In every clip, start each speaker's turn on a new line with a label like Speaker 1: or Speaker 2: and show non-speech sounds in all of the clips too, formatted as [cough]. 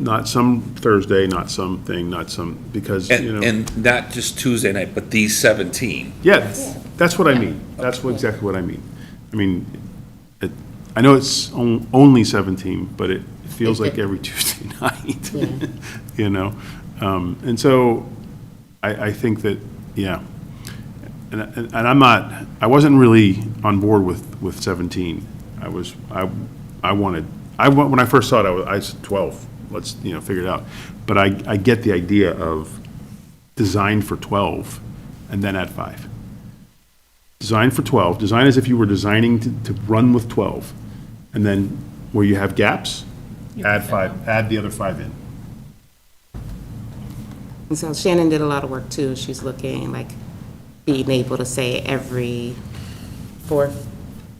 Speaker 1: Not some Thursday, not something, not some, because, you
Speaker 2: And,
Speaker 1: know,
Speaker 2: and not just Tuesday night, but these 17.
Speaker 1: yeah, that's what I mean. That's what, exactly what I mean. I mean, it, I know it's on- only seventeen, but it feels like every Tuesday [laughs] night, you know? Um, and so I, I think that, yeah. And, and and I'm not, I wasn't really on board with, with seventeen. I was, I, I wanted, I, wa- when I first saw it, I was, I said twelve, let's, you know, figure it out. But I, I get the idea of design for twelve and then add five. Design for 12, design as if you were designing to, to run with 12. And then where you have gaps, add five, add the other five in.
Speaker 3: And so Shannon did a lot of work too. She's looking like being able to say every fourth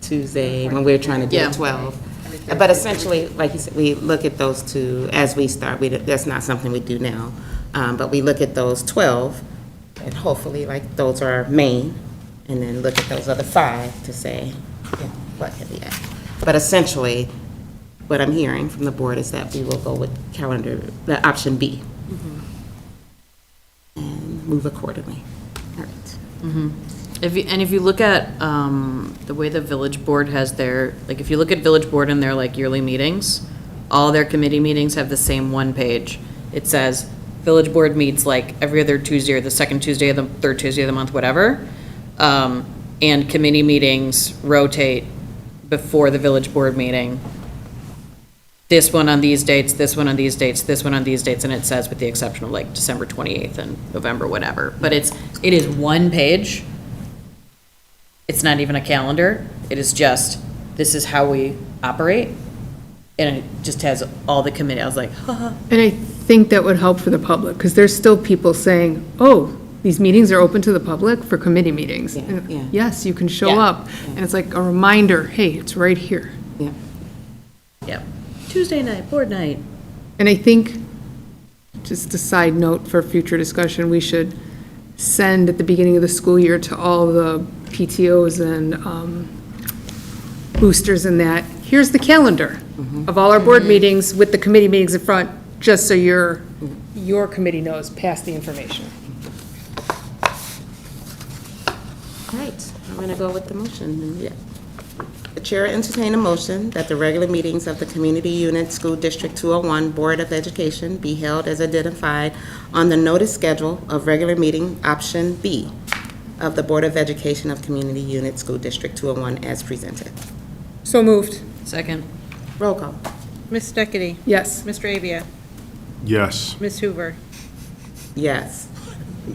Speaker 3: Tuesday when we're trying to do
Speaker 4: Yeah.
Speaker 3: 12. But essentially, like you said, we look at those two as we start. We, don't- that's not something we do now. Um, but we look at those 12 and hopefully like those are our main and then look at those other five to say, yeah, what have we add? But essentially, what I'm hearing from the board is that we will go with calendar, the option B and move accordingly. All right.
Speaker 4: If you, and if you look at, um, the way the village board has their, like, if you look at village board and their like yearly meetings, all their committee meetings have the same one page. It says, village board meets like every other Tuesday or the second Tuesday of the, third Tuesday of the month, whatever. Um, and committee meetings rotate before the village board meeting. This one on these dates, this one on these dates, this one on these dates, and it says with the exception of like December twenty-eighth and November, whatever. But it's, it is one page it's not even a calendar, it is just, this is how we operate. And it just has all the committee, I was like, [laughs] haha.
Speaker 5: And I think that would help for the public, because there's still people saying, oh, these meetings are open to the public for committee meetings.
Speaker 3: Yeah,
Speaker 5: And,
Speaker 3: yeah.
Speaker 5: Yes, you can
Speaker 4: Yeah.
Speaker 5: show up, and it's like a reminder, hey, it's right here.
Speaker 3: Yeah.
Speaker 4: Yep. Tuesday night, board night.
Speaker 5: And I think, just a side note for future discussion, we should send at the beginning of the school year to all the PTOs and um, boosters and that, here's the calendar of all our board meetings with the committee meetings in front, just so your, your committee knows, pass the information.
Speaker 3: All right, I'm going to go with the motion. Yeah. The chair entertain a motion that the regular meetings of the Community Unit School District 201 Board of Education be held as identified on the notice schedule of regular meeting option B of the Board of Education of Community Unit School District 201 as presented.
Speaker 5: So moved.
Speaker 4: Second.
Speaker 3: Roll call.
Speaker 6: Ms. Steckity?
Speaker 5: Yes.
Speaker 6: Mr. Avia?
Speaker 1: Yes,
Speaker 6: Ms. Hoover?
Speaker 3: Yes.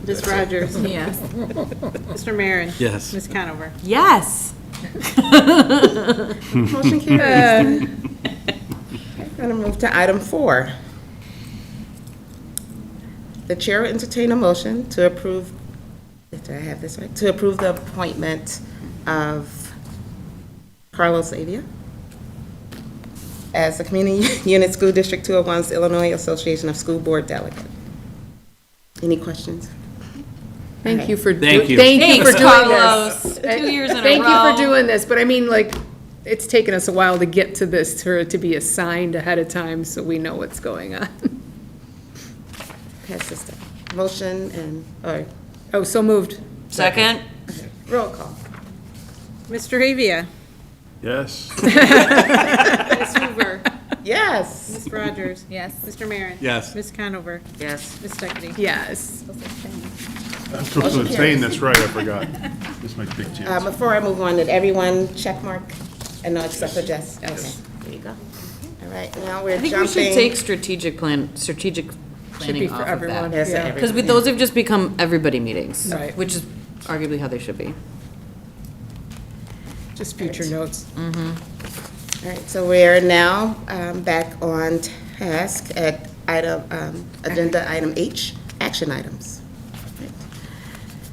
Speaker 6: Ms. Rogers?
Speaker 4: Yes.
Speaker 6: Mr. Marin? Yes. Ms. Conover?
Speaker 4: Yes.
Speaker 3: Motion carries. Going to move to item four. The chair will entertain a motion to approve, did I have this right? To approve the appointment of Carlos Avia as the Community [laughs] Unit School District 201's Illinois Association of School Board Delegate. Any questions?
Speaker 5: Thank you for. do-
Speaker 7: Thank you.
Speaker 5: Thank you for
Speaker 4: Thanks,
Speaker 5: doing this. Uh,
Speaker 4: Carlos. Two years in a row.
Speaker 5: Thank you for doing this, but I mean, like, it's taken us a while to get to this, for it to be assigned ahead of time, so we know what's going on. [laughs]
Speaker 3: Pass this down. Motion and, or
Speaker 5: Oh, so moved.
Speaker 4: Second.
Speaker 3: roll call.
Speaker 6: Mr. Avia?
Speaker 1: yes.
Speaker 6: Ms. Hoover?
Speaker 3: Yes.
Speaker 6: Ms. Rogers? Yes. Mr. Marin?
Speaker 7: Yes.
Speaker 6: Ms. Conover?
Speaker 3: Yes.
Speaker 6: Ms. Steckity?
Speaker 5: Yes.
Speaker 1: [laughs] I'm supposed to abstain, that's right, I [laughs] forgot. This is my big
Speaker 3: Uh,
Speaker 1: chance.
Speaker 3: Before I move on, did everyone check mark? And no, except for Jess? Okay, there you go. All right, now
Speaker 4: I
Speaker 3: we're jumping.
Speaker 4: think we should take strategic plan, strategic planning
Speaker 5: for
Speaker 4: off of
Speaker 5: everyone.
Speaker 4: that.
Speaker 3: Yes,
Speaker 5: Yeah.
Speaker 3: every-
Speaker 4: Because with, those have just become everybody meetings,
Speaker 5: Right.
Speaker 4: which is arguably how they should be.
Speaker 5: Just future notes.
Speaker 3: All right, so we're now um, back on task at item, um, agenda item H, action items.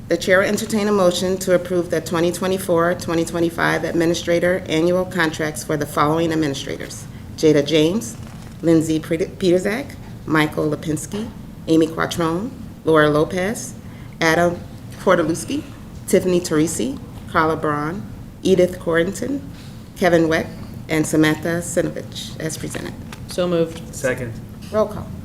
Speaker 3: The chair will entertain a motion to approve the 2024-2025 administrator annual contracts for the following administrators: Jada James, Lindsay Pret- Peterzak, Michael Lipinski, Amy Quattrone, Laura Lopez, Adam Portaluski, Tiffany Teresi, Carla Braun, Edith Corrington, Kevin Weck, and Samantha Sinovich, as presented.
Speaker 4: So moved.
Speaker 7: Second.
Speaker 3: Roll call.